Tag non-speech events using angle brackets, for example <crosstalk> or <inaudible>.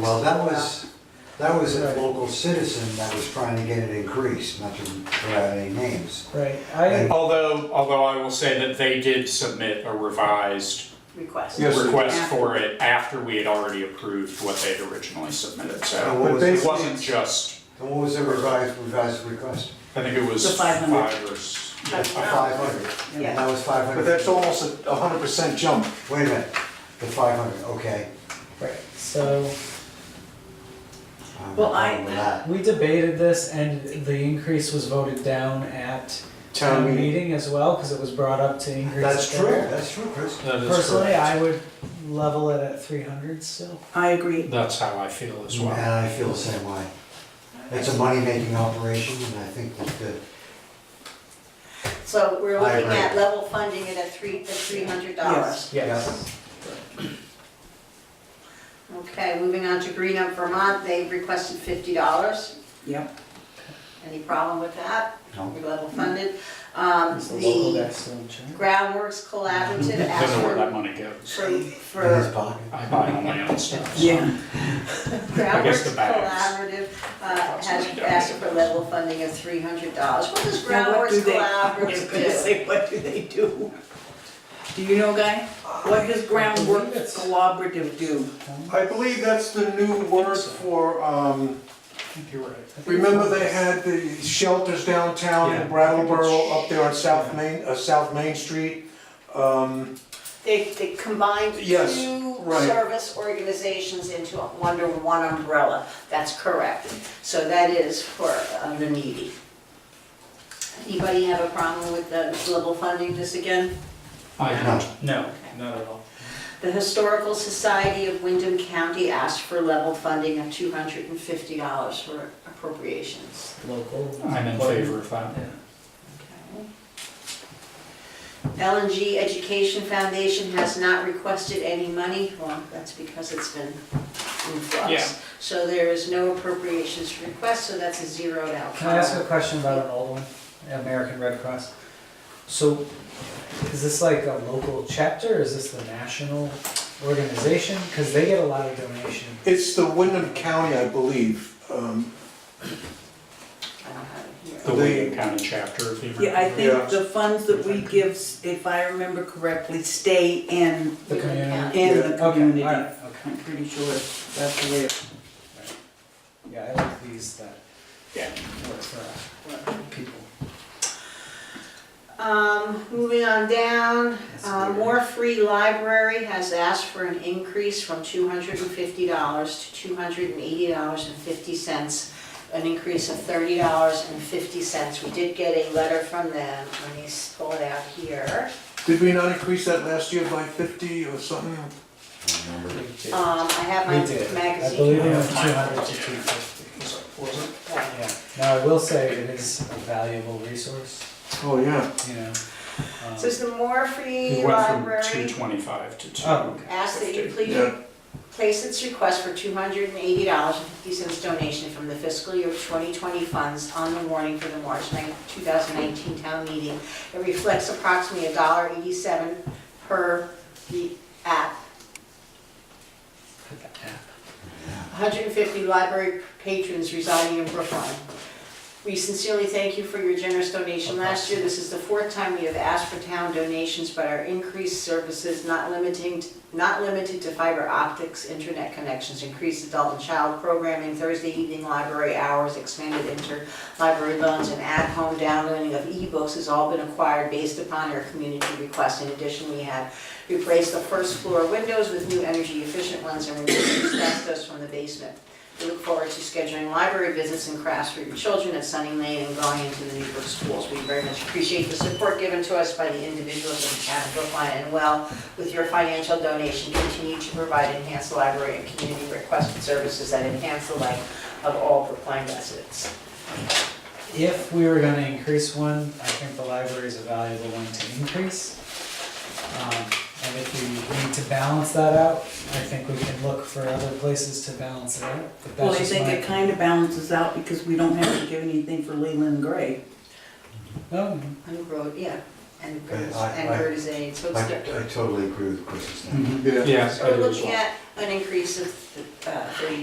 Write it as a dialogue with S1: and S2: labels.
S1: Well, that was, that was a local citizen that was trying to get it increased, not to throw out any names.
S2: Right, I,
S3: Although, although I will say that they did submit a revised
S4: request.
S5: Yes, they did.
S3: request for it after we had already approved what they'd originally submitted,
S1: And
S3: so
S1: what was,
S3: it
S1: and
S3: wasn't just,
S1: what was the revised, revised request?
S3: I think it was
S4: The
S3: five
S4: 500.
S3: or, s-
S1: A five hundred, and that was five
S5: But
S1: hundred.
S5: that's almost a hundred percent jump.
S1: Wait a minute, the five hundred, okay.
S2: right, so
S1: I'm
S4: Well,
S1: fine
S4: I-
S1: with that.
S2: we debated this and the increase was voted down at town meeting as well, cause it was brought up to increase.
S1: That's
S2: it
S1: true,
S2: there.
S1: that's true, Chris.
S2: Personally, I would level it at three hundred still.
S4: I agree.
S3: that's how I feel as
S1: And
S3: well.
S1: I feel the same way. It's a money-making operation, and I think that the,
S6: So we're
S1: I
S6: looking
S1: agree.
S6: at level funding it at three, at three hundred dollars.
S4: Yes.
S1: Yes.
S6: Okay, moving on to Green Up Vermont, they requested fifty dollars.
S4: Yep.
S6: Any problem with that?
S1: no,
S6: We're level funded. Um,
S2: It's the local
S6: the
S2: excellent check.
S6: Groundworks Collaborative
S3: I don't know where that
S6: asked
S3: money goes.
S6: for,
S1: in his
S6: for, for
S1: pocket.
S3: I buy all my own stuff. so.
S4: Yeah.
S3: guess
S6: Groundworks
S3: the bags.
S6: Collaborative, uh,
S3: That's what
S6: has
S3: we don't
S6: asked
S3: need.
S6: for level funding of three hundred dollars. What does
S4: Now, what do
S6: Groundworks
S4: they, I was <laughs>
S6: Collaborative
S4: gonna
S6: do?
S4: say, what do they do? Do you know, Guy? What does
S2: I
S4: groundwork
S2: believe it's-
S4: collaborative do?
S5: I believe that's the new word for, um,
S3: I think you're right.
S5: remember they had the shelters downtown
S3: Yeah.
S5: in Brattleboro up there on South Main, uh, South Main Street? Um,
S6: They, they combined
S5: Yes,
S6: two
S5: right.
S6: service organizations into a- under one umbrella. That's correct. So that is for uh, the needy. Anybody have a problem with the level funding this again?
S3: I don't, no,
S6: Okay.
S3: not at all.
S6: The Historical Society of Wyndham County asked for level funding of two hundred and fifty dollars for appropriations.
S2: Local.
S3: I'm in favor of that.
S6: LNG Education Foundation has not requested any money, well, that's because it's been in
S3: Yeah.
S6: flux. So there is no appropriations request, so that's a zeroed out.
S2: Can I ask a question about an old one, American Red Cross? So, is this like a local chapter, or is this the national organization? Cause they get a lot of donation.
S5: It's the Wyndham County, I believe, um,
S6: I don't have it here.
S3: The
S5: They-
S3: Wayne County chapter of the.
S4: Yeah, I
S5: Yeah.
S4: think the funds that we give, if I remember correctly, stay in,
S2: The community?
S4: in the
S2: Okay, all
S4: community.
S2: right,
S4: I'm pretty sure that's the way it
S2: Yeah, I like these that
S3: Yeah.
S2: work for uh, people.
S6: Um, moving on down, uh, More Free Library has asked for an increase from two hundred and fifty dollars to two hundred and eighty dollars and fifty cents, an increase of thirty dollars and fifty cents. We did get a letter from them, let me s- pull it out here.
S5: did we not increase that last year by fifty or something?
S6: Um, I have my
S2: We did.
S6: magazine.
S2: I believe it was two hundred to two fifty. Yeah, now I will say it is a valuable resource,
S5: Oh, yeah.
S2: you know. um,
S6: So it's the More Free
S3: It went from two
S6: Library
S3: twenty-five to two.
S2: Oh, okay.
S6: asked that you please
S5: Yeah.
S6: place its request for two hundred and eighty dollars and fifty cents donation from the fiscal year twenty twenty funds on the warning for the March two thousand nineteen town meeting. It reflects approximately a dollar eighty-seven per the app.
S2: Put that app.
S6: hundred and fifty library patrons residing in Brookline. We sincerely thank you for your generous donation last year. This is the fourth time we have asked for town donations, but our increased services not limiting, not limited to fiber optics, internet connections, increased adult and child programming, Thursday evening library hours, expanded interlibrary loans, and at-home downloading of ebooks has all been acquired based upon our community request. In addition, we have replaced the first floor windows with new energy efficient ones and removed asbestos from the basement. We look forward to scheduling library visits and crafts for your children at Sunny Lane and going into the Newburgh schools. We very much appreciate the support given to us by the individuals in the town of Brookline and well, with your financial donation, continue to provide enhanced library and community requested services that enhance the life of all Brookline residents.
S2: If we were gonna increase one, I think the library is a valuable one to increase. Um, and if we need to balance that out, I think we can look for other places to balance it out, but
S4: Well,
S2: that's
S4: I
S2: just
S4: think it
S2: my.
S4: kind of balances out because we don't have to give anything for Leland Gray.
S2: No, no.
S6: And Grove, yeah, and
S1: Right,
S6: Gertz-
S1: I-
S6: and
S1: I-
S6: Gertz Aid, so
S1: I,
S6: it's different.
S1: I totally agree with Chris's thing.
S3: Mhm.
S5: Yeah.
S3: Yeah. I
S6: So we're
S3: do as
S6: looking
S3: well.
S6: at an increase of uh, thirty